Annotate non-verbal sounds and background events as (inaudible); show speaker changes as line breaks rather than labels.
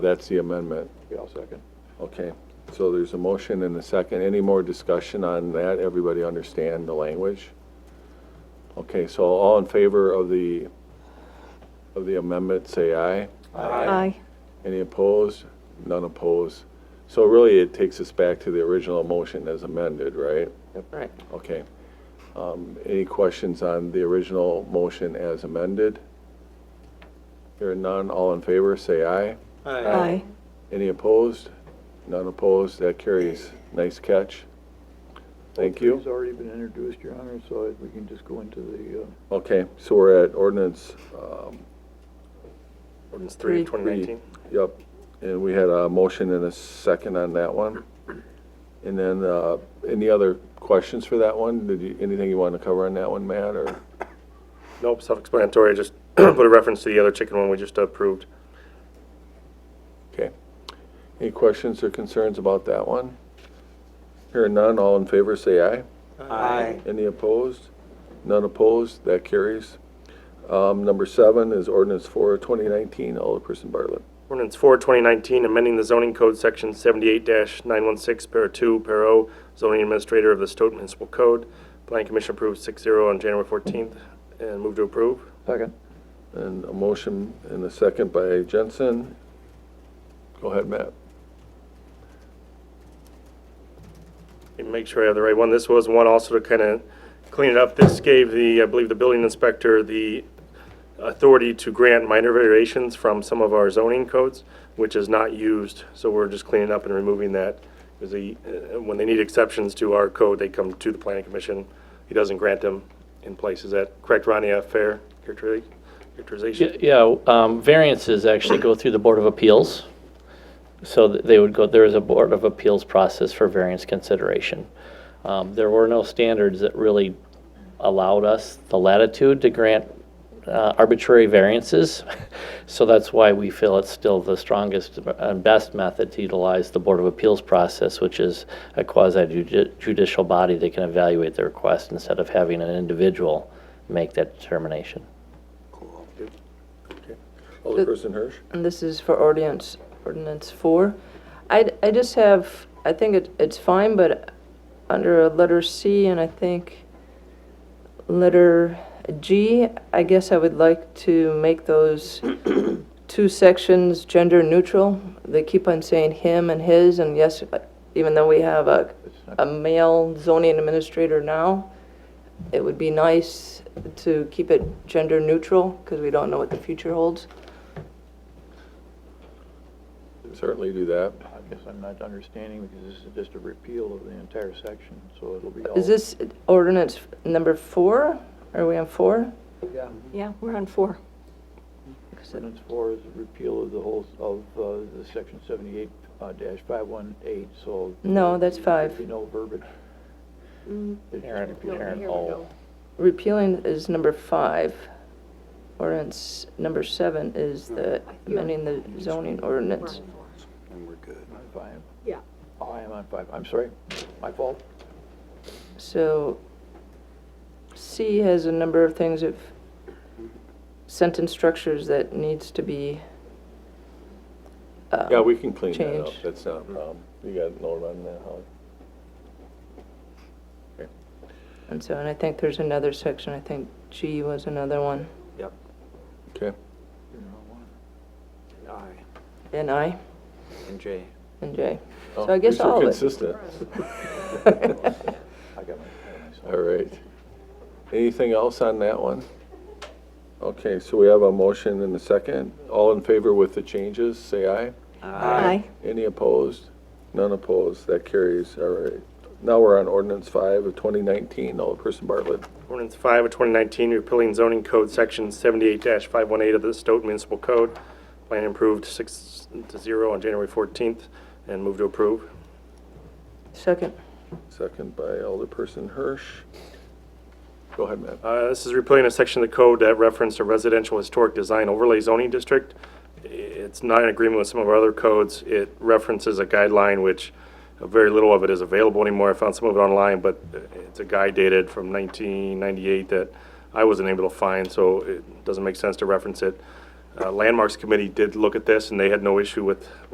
That's the amendment.
Yeah, I'll second.
Okay, so there's a motion and a second. Any more discussion on that? Everybody understand the language? Okay, so all in favor of the, of the amendment, say aye.
Uh,
Aye.
Any opposed? None opposed. So really, it takes us back to the original motion as amended, right?
Right.
Okay. Um, Any questions on the original motion as amended? Hearing none, all in favor, say aye.
Aye.
Any opposed? None opposed, that carries. Nice catch. Thank
It's
you.
already been introduced, Your Honor, so we can just go into the, uh,
Okay, so we're at ordinance, um,
Ordinance
Three.
3, 2019.
yep, and we had a motion and a second on that one. And then, uh, any other questions for that one? Did you, anything you want to cover on that one, Matt, or?
Nope, self-explanatory, just (clears throat) put a reference to the other chicken one we just approved.
Okay. Any questions or concerns about that one? Hearing none, all in favor, say aye. Aye. Any opposed? None opposed, that carries. Um, number seven is ordinance for 2019, Alderperson Bartlett.
Ordinance 4, 2019, amending the zoning code section 78-916, para 2, para O, zoning administrator of the Stoughton Municipal Code. Planning Commission approved 6-0 on January 14th, and move to approve.
second.
And a motion and a second by Jensen. Go ahead, Matt.
and make sure I have the right one. This was one also to kind of clean it up. This gave the, I believe, the building inspector the authority to grant minor variations from some of our zoning codes, which is not used. So we're just cleaning up and removing that. Because the, uh, when they need exceptions to our code, they come to the planning commission. He doesn't grant them in place. Is that correct, Ronnie? A fair characteri- characterization?
Y- Yeah, um, variances actually go through the Board of Appeals. So th- they would go, there is a Board of Appeals process for variance consideration. Um, There were no standards that really allowed us the latitude to grant uh, arbitrary variances. (laughs) So that's why we feel it's still the strongest and best method to utilize the Board of Appeals process, which is a quasi judi- judicial body that can evaluate the request instead of having an individual make that determination.
Alderperson Hirsch?
And this is for ordinance, ordinance four. I, I just have, I think it, it's fine, but under letter C and I think letter G, I guess I would like to make those two sections gender neutral. They keep on saying him and his, and yes, even though we have a, a male zoning administrator now, it would be nice to keep it gender neutral, because we don't know what the future holds.
Certainly do that.
I guess I'm not understanding because this is just a repeal of the entire section, so it'll be all.
Is this ordinance number four? Are we on four?
Yeah,
Yeah, we're on four.
ordinance four is a repeal of the whole, of, uh, the section seventy-eight, uh, dash five one eight, so.
No, that's five.
There'll be no verbiage. It's just repeal.
Repealing is number five. Ordinance number seven is the amending the zoning ordinance.
I'm Five,
Yeah.
Oh, I am on five, I'm sorry, my fault.
So C has a number of things of sentence structures that needs to be. um,
Yeah, we can clean that up.
Change.
That's not a problem. You got no run there, Holly?
And so, and I think there's another section, I think G was another one,
Yep.
Okay.
You're on one.
and I,
And Jay.
and J. So
Oh,
I guess
you're so
all of it. (laughs)
Consistent.
I got my, I got myself.
All right. Anything else on that one? Okay, so we have a motion and a second. All in favor with the changes, say aye.
Aye.
Any opposed? None opposed. That carries. All right. Now we're on ordinance five of 2019. Alderperson Bartlett.
Ordinance 5 of 2019, repealing zoning code section 78-518 of the Stoughton Municipal Code. Plan improved 6 to 0 on January 14th, and move to approve.
Second.
Second by Alderperson Hirsch. Go ahead, Matt.
Uh, This is repealing a section of the code that referenced a residential historic design overlay zoning district. It's not in agreement with some of our other codes. It references a guideline, which uh, very little of it is available anymore. I found some of it online, but uh, it's a guide dated from 1998 that I wasn't able to find, so it doesn't make sense to reference it. Uh, uh, Landmarks Committee did look at this, and they had no issue with